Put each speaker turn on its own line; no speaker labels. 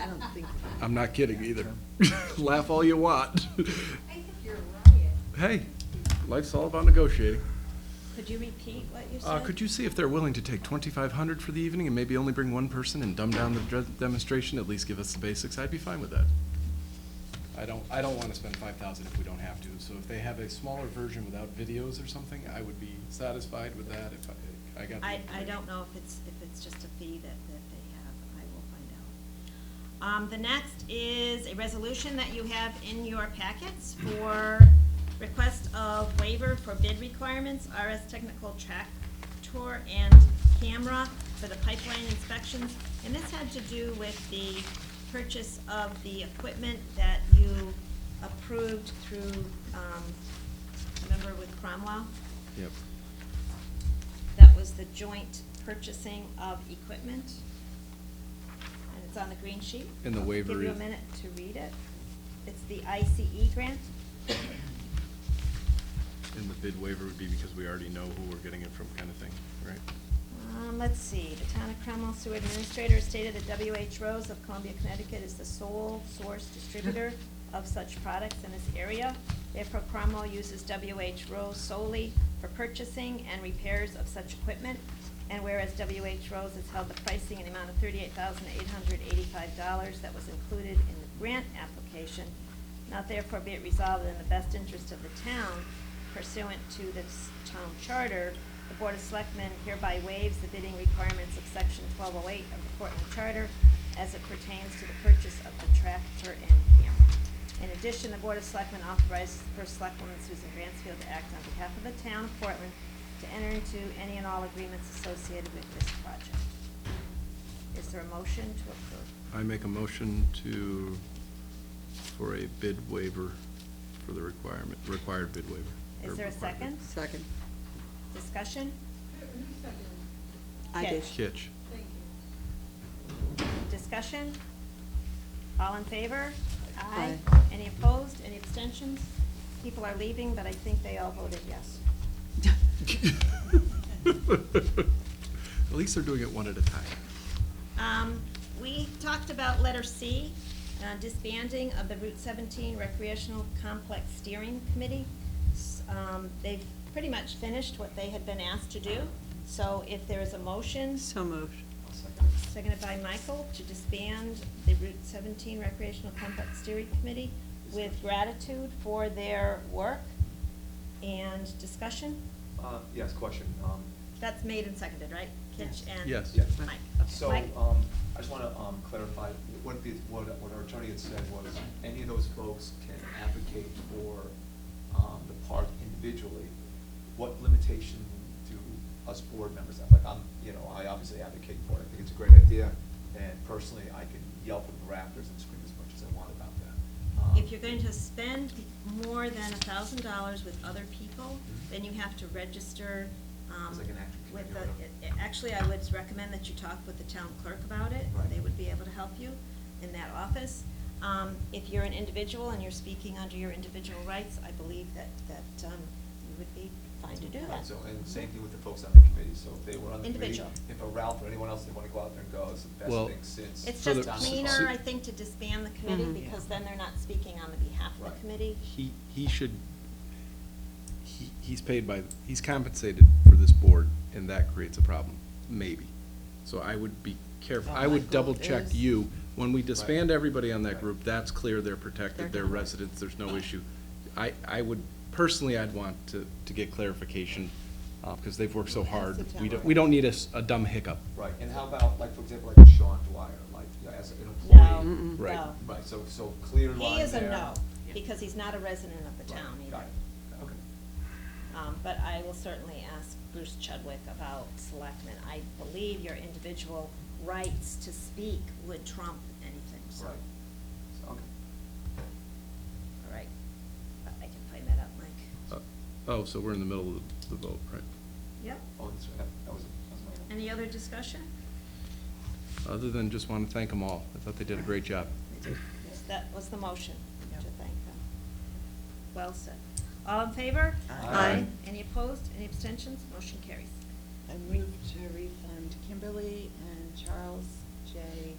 I don't think.
I'm not kidding either. Laugh all you want.
I think you're right.
Hey, life's all about negotiating.
Could you repeat what you
Uh, could you see if they're willing to take twenty-five hundred for the evening and maybe only bring one person and dumb down the dre- demonstration, at least give us the basics? I'd be fine with that. I don't, I don't wanna spend five thousand if we don't have to, so if they have a smaller version without videos or something, I would be satisfied with that if I, I got. the
I, I
information.
don't know if it's, if it's just a fee that, that they have, I will find out. Um, the next is a resolution that you have in your packets for request of waiver for bid requirements, RS Technical Tractor and Camera for the pipeline inspections. And this had to do with the purchase of the equipment that you approved through, um, remember with Cromwell?
Yep.
That was the joint purchasing of equipment. And it's on the green sheet.
And the waiver
Give you a
is-
minute to read it. It's the ICE grant.
And the bid waiver would be because we already know who we're getting it from kind of thing, right?
Um, let's see, the town of Cromwell Sewer Administrator stated that WH Rose of Columbia, Connecticut is the sole source distributor of such products in this area. Therefore, Cromwell uses WH Rose solely for purchasing and repairs of such equipment. And whereas WH Rose has held the pricing in the amount of thirty-eight thousand eight hundred eighty-five dollars that was included in the grant application, now therefore be it resolved that in the best interest of the town pursuant to this town charter, the Board of Selectmen hereby waives the bidding requirements of section twelve oh eight of the Portland Charter as it pertains to the purchase of the tractor and camera. In addition, the Board of Selectmen authorizes the first selectwoman Susan Bransfield to act on behalf of the town of Portland to enter into any and all agreements associated with this project. Is there a motion to approve?
I make a motion to, for a bid waiver for the requirement, required bid waiver. or
Is there a
required
second?
bid.
Second.
Discussion?
I did.
Yes.
Kitch.
Discussion? All in favor?
Aye.
Any opposed? Any abstentions? People are leaving, but I think they all voted yes.
At least they're doing it one at a time.
Um, we talked about letter C, uh, disbanding of the Route seventeen recreational complex steering committee. S- Um, they've pretty much finished what they had been asked to do, so if there is a motion,
So moved.
seconded by Michael, to disband the Route seventeen recreational complex steering committee with gratitude for their work and discussion.
Uh, Yes, question. Um,
That's made and seconded, right? Kitch and Mike.
Yes.
Yes.
Okay,
So,
Mike?
um, I just want to clarify, what the, what what our attorney had said was, any of those folks can advocate for um, the park individually. What limitation do us board members have? Like, I'm, you know, I obviously advocate for it, I think it's a great idea, and personally, I can yelp at the rafters and scream as much as I want about that. Um,
If you're going to spend more than a thousand dollars with other people, then you have to register, um,
It's like an act-
with
you know.
the, a- actually, I would recommend that you talk with the town clerk about it.
Right.
They would be able to help you in that office. Um, if you're an individual and you're speaking under your individual rights, I believe that, that, um, you would be fine to do
Right,
that.
So, and same thing with the folks on the committee, so if they were on the committee,
Individual.
if a Ralph or anyone else, they want to go out there and go, it's the
Well-
best thing since.
It's
So
just
the- Mm-hmm.
cleaner,
so-
I think, to disband the committee,
Mhm.
because then they're not speaking on the behalf of the
Right.
committee.
He, he should, he, he's paid by, he's compensated for this board, and that creates a problem, maybe. So I would be careful, I would double check you, when we disband
Right.
everybody on that
Right.
group, that's clear, they're protected,
They're
they're
not.
residents, there's no issue. I, I would, personally, I'd want to, to get clarification, uh, because they've worked so hard. We don't, we don't need a, s- a dumb hiccup.
Right, and how about, like, for example, like Sean Dwyer, like, you know, as an employee?
No,
Right.
no.
Right, so, so clear line there.
He is a no, because he's not a resident of the
Right,
town either.
Got it, okay.
Um, but I will certainly ask Bruce Chudwick about selectmen. I believe your individual rights to speak would trump anything, so.
Right, So, okay.
All right, I can find that out, Mike.
Uh, Oh, so we're in the middle of the vote, right?
Yep.
Oh, that's right, that that was, that was my.
Any other discussion?
Other than just want to thank them all. I thought they did a great job.
Yes, That was the motion, to thank them. Well said. All in favor?
Aye. Aye.
Any opposed? Any abstentions? Motion carries.
I move to refund Kimberly and Charles J.